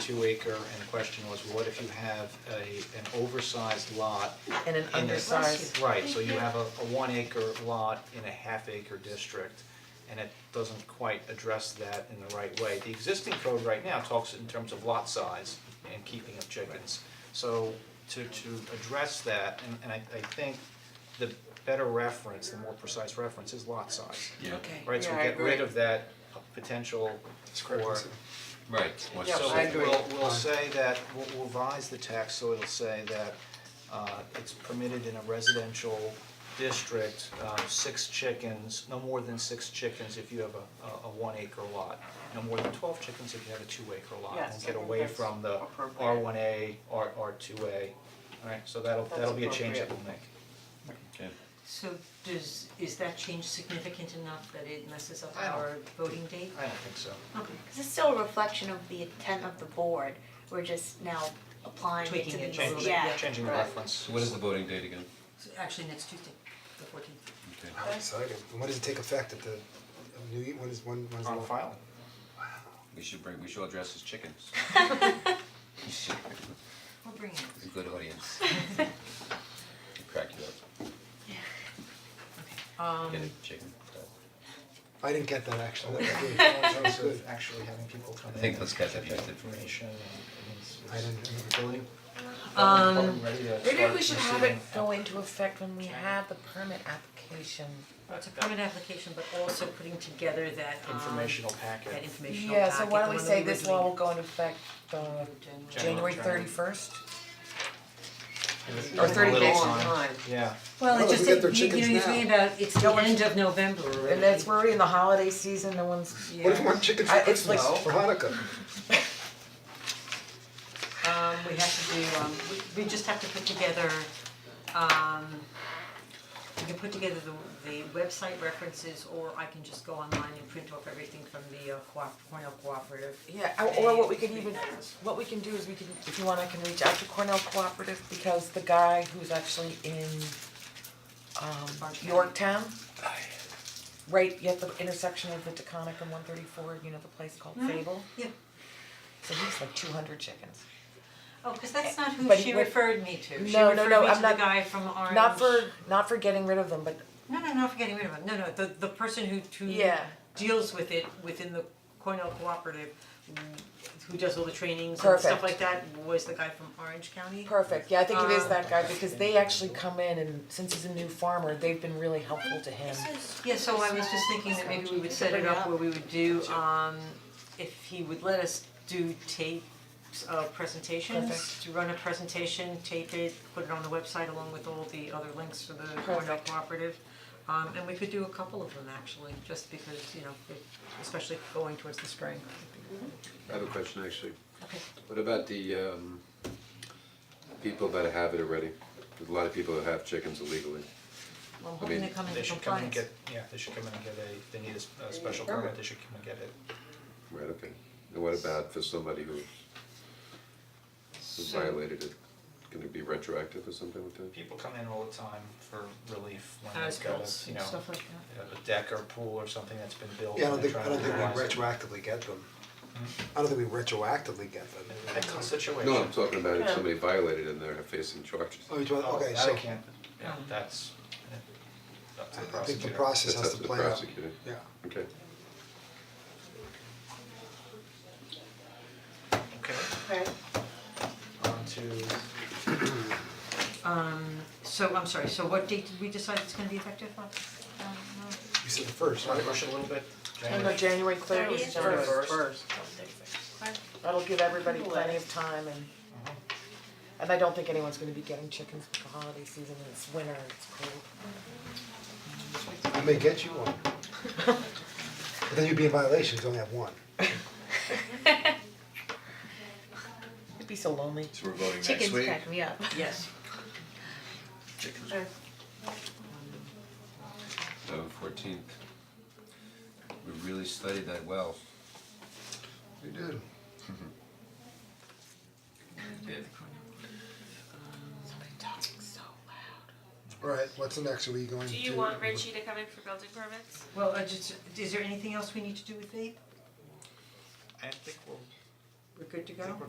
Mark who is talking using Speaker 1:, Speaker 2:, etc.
Speaker 1: two acre, and the question was, what if you have a, an oversized lot?
Speaker 2: And an
Speaker 1: in a-
Speaker 2: undersized.
Speaker 1: Right, so you have a, a one acre lot in a half acre district, and it doesn't quite address that in the right way. The existing code right now talks in terms of lot size and keeping of chickens. So to, to address that, and, and I, I think the better reference, the more precise reference is lot size.
Speaker 2: Okay.
Speaker 1: Right, so
Speaker 2: Yeah,
Speaker 1: we
Speaker 2: I
Speaker 1: get rid
Speaker 2: agree.
Speaker 1: of that potential for.
Speaker 3: Right, more
Speaker 2: Yeah,
Speaker 1: So
Speaker 2: I
Speaker 3: specific.
Speaker 2: agree.
Speaker 1: we'll we'll say that, we'll we'll revise the text, so it'll say that uh it's permitted in a residential district, uh six chickens, no more than six chickens if you have a a- a one acre lot. No more than twelve chickens if you have a two acre lot, and
Speaker 2: Yes, I
Speaker 1: get
Speaker 2: think
Speaker 1: away
Speaker 2: that's
Speaker 1: from the
Speaker 2: appropriate.
Speaker 1: R one A, R R two A. Alright, so that'll
Speaker 2: That's
Speaker 1: that'll be a change that
Speaker 2: appropriate.
Speaker 1: we'll make.
Speaker 3: Okay.
Speaker 4: So does, is that change significant enough that it messes up
Speaker 1: I don't-
Speaker 4: our voting date?
Speaker 1: I don't think so.
Speaker 4: Okay.
Speaker 5: Cause it's still a reflection of the intent of the board, we're just now applying it to
Speaker 4: Tweaking it a
Speaker 5: these, yeah.
Speaker 4: little bit, yeah.
Speaker 1: Changing the
Speaker 5: right.
Speaker 1: reference.
Speaker 3: So what is the voting date again?
Speaker 4: So actually, next Tuesday, the fourteenth.
Speaker 3: Okay.
Speaker 6: How exciting, And when does it take effect at the, New Year, when is, when, when is the?
Speaker 1: On file.
Speaker 3: We should bring, we should all dress as chickens.
Speaker 4: We'll bring
Speaker 1: Uh,
Speaker 4: it,
Speaker 3: A good audience. Crack you
Speaker 4: okay.
Speaker 3: up,
Speaker 4: Um,
Speaker 3: get a chicken.
Speaker 6: I didn't get that actually, that was good.
Speaker 1: In
Speaker 6: That was
Speaker 1: terms
Speaker 6: good.
Speaker 1: of actually having people come in.
Speaker 3: I think those guys have
Speaker 1: and get
Speaker 3: used it.
Speaker 1: Information and
Speaker 6: I
Speaker 1: it's
Speaker 6: didn't-
Speaker 1: it's ability.
Speaker 4: Um,
Speaker 1: Ready to
Speaker 2: Maybe
Speaker 1: start
Speaker 2: we should have it
Speaker 1: receiving
Speaker 2: go into effect when we have the permit application.
Speaker 4: it's a permit application, but also putting together that um,
Speaker 1: Informational packet.
Speaker 4: that informational
Speaker 2: Yeah, so
Speaker 4: packet,
Speaker 2: why
Speaker 4: the
Speaker 2: don't we
Speaker 4: one
Speaker 2: say
Speaker 4: that
Speaker 2: this
Speaker 4: were
Speaker 2: law
Speaker 4: doing.
Speaker 2: will go into effect uh January
Speaker 1: January.
Speaker 2: thirty first?
Speaker 1: Give it
Speaker 2: Or
Speaker 1: a
Speaker 2: thirty
Speaker 1: little
Speaker 2: days of time.
Speaker 1: Yeah,
Speaker 4: Well,
Speaker 6: Well,
Speaker 4: it
Speaker 6: if
Speaker 4: just,
Speaker 6: we get their
Speaker 4: you you
Speaker 6: chickens
Speaker 4: know, you're
Speaker 6: now.
Speaker 4: thinking about, it's the end of November already.
Speaker 2: And that's, we're in the holiday season, no one's,
Speaker 6: What if you want chickens
Speaker 2: I-
Speaker 6: for
Speaker 2: it's
Speaker 6: Christmas,
Speaker 2: like-
Speaker 6: for Hanukkah?
Speaker 4: Um, we have to do, um, we, we just have to put together, um, we can put together the, the website references, or I can just go online and print off everything from the uh, co- Cornell Cooperative.
Speaker 2: Yeah, or- or what we could even, what we can do is we can, if you want, I can reach out to Cornell Cooperative because the guy who's actually in um
Speaker 4: Orange County.
Speaker 2: Yorktown. Right, at the intersection of the Taconic and one thirty four, you know, the place called Fable,
Speaker 4: Mm-hmm. Yeah,
Speaker 2: so he's like two hundred chickens.
Speaker 4: oh, cause that's not who
Speaker 2: But
Speaker 4: she
Speaker 2: what-
Speaker 4: referred me to, she
Speaker 2: No,
Speaker 4: referred
Speaker 2: no,
Speaker 4: me
Speaker 2: no, I'm
Speaker 4: to the
Speaker 2: not-
Speaker 4: guy from Orange.
Speaker 2: Not for, not for getting rid of them, but
Speaker 4: No, no, not for getting rid of it, no, no, the, the person who, who
Speaker 2: Yeah.
Speaker 4: deals with it within the Cornell Cooperative, who does all the trainings and
Speaker 2: Perfect.
Speaker 4: stuff like that, was the guy from Orange County.
Speaker 2: perfect, yeah, I think it is
Speaker 4: Um,
Speaker 2: that guy because they actually come in and since he's a new farmer, they've been really helpful to him.
Speaker 4: Yeah, so I was just thinking that maybe we would set it up where we would do, um, if he would let us do tapes of presentations,
Speaker 2: Perfect.
Speaker 4: to run a presentation, tape it, put it on the website along with all the other links for the Cornell
Speaker 2: Perfect.
Speaker 4: Cooperative. Um, and we could do a couple of them actually, just because, you know, it- especially going towards the spring.
Speaker 7: I have a question actually.
Speaker 4: Okay.
Speaker 7: What about the um people that have it already? There's a lot of people that have chickens illegally.
Speaker 4: Well, I'm
Speaker 7: I
Speaker 4: hoping
Speaker 7: mean,
Speaker 4: to come into
Speaker 1: they should come and
Speaker 4: compliance.
Speaker 1: get, yeah, they should come in and get a, if they need a s- a special permit, they should come and get it.
Speaker 7: Right, okay. And what about for somebody who who's
Speaker 4: So-
Speaker 7: violated it? Can it be retroactive or something like that?
Speaker 1: People come in all the time for relief when
Speaker 4: As
Speaker 1: they've got
Speaker 4: bills
Speaker 1: a, you
Speaker 4: and
Speaker 1: know,
Speaker 4: stuff like that.
Speaker 1: a deck or pool or something that's been built
Speaker 6: Yeah, I don't
Speaker 1: and they're
Speaker 6: think, I
Speaker 1: trying to
Speaker 6: don't think we
Speaker 1: utilize it. Hmm?
Speaker 6: retroactively get them. I don't think we retroactively get them.
Speaker 1: Excellent situation.
Speaker 7: No, I'm talking about if somebody violated and they're facing charges.
Speaker 6: Oh, you're talking,
Speaker 1: Oh,
Speaker 6: okay,
Speaker 1: that I
Speaker 6: so
Speaker 1: can't, yeah, that's, up to the
Speaker 6: I think the
Speaker 1: prosecutor.
Speaker 6: process
Speaker 7: That's
Speaker 6: has to
Speaker 7: up to the
Speaker 6: play out.
Speaker 7: prosecutor.
Speaker 6: Yeah,
Speaker 7: Okay.
Speaker 1: Okay.
Speaker 5: Right.
Speaker 1: on to
Speaker 4: So, I'm sorry, so what date did we decide it's gonna be effective on?
Speaker 6: you said the first, right?
Speaker 1: Wanna push it a little bit,
Speaker 2: I
Speaker 1: January?
Speaker 2: know January thirty is January
Speaker 1: Thirty-first.
Speaker 2: first. That'll give everybody plenty of time and and I don't think anyone's gonna be getting chickens with the holiday season, and it's winter, and it's cold.
Speaker 6: I may get you one. But then you'd be in violation, 'cause you only have one.
Speaker 2: It'd be so lonely.
Speaker 3: So we're voting next
Speaker 5: Chickens
Speaker 3: week?
Speaker 5: crack me up.
Speaker 4: Yes.
Speaker 3: Chickens.
Speaker 5: Or-
Speaker 2: uh,
Speaker 3: November fourteenth. We really studied that well.
Speaker 6: You did. Alright, what's the next, are we going to?
Speaker 8: Do you want Richie to come in for building permits?
Speaker 4: Well, I just, is there anything else we need to do with vape?
Speaker 1: I think we'll
Speaker 4: We're good to go?
Speaker 1: I think we're